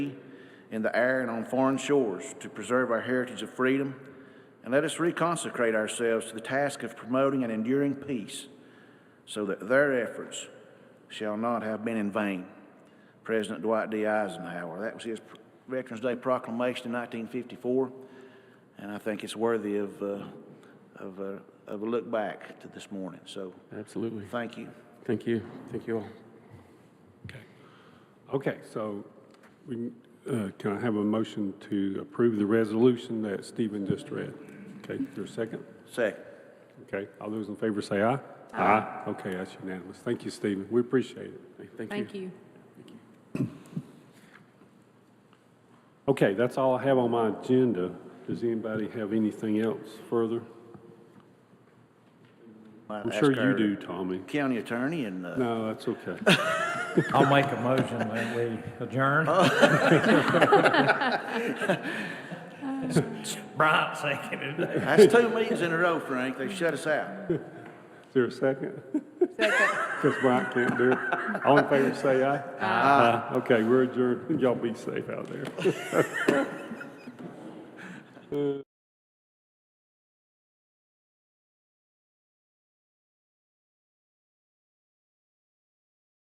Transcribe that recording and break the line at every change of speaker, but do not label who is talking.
in the air and on foreign shores to preserve our heritage of freedom, and let us reconsecrate ourselves to the task of promoting and enduring peace so that their efforts shall not have been in vain. President Dwight D. Eisenhower. That was his Veterans Day proclamation in 1954, and I think it's worthy of, uh, of, uh, of a look back to this morning. So
Absolutely.
thank you.
Thank you. Thank you all.
Okay. Okay, so we, uh, can I have a motion to approve the resolution that Stephen just read? Okay, your second?
Second.
Okay, all those in favor say aye. Aye. Okay, that's unanimous. Thank you, Stephen. We appreciate it.
Thank you.
Thank you.
Okay, that's all I have on my agenda. Does anybody have anything else further? I'm sure you do, Tommy.
County attorney and uh,
No, that's okay.
I'll make a motion that we adjourn. Brian seconded it.
that's two meetings in a row, Frank. They shut us out.
Is there a second?
Second.
Because Brian can't do it. All in favor, say aye. Aye. Okay, we're adjourned. Y'all be safe out there.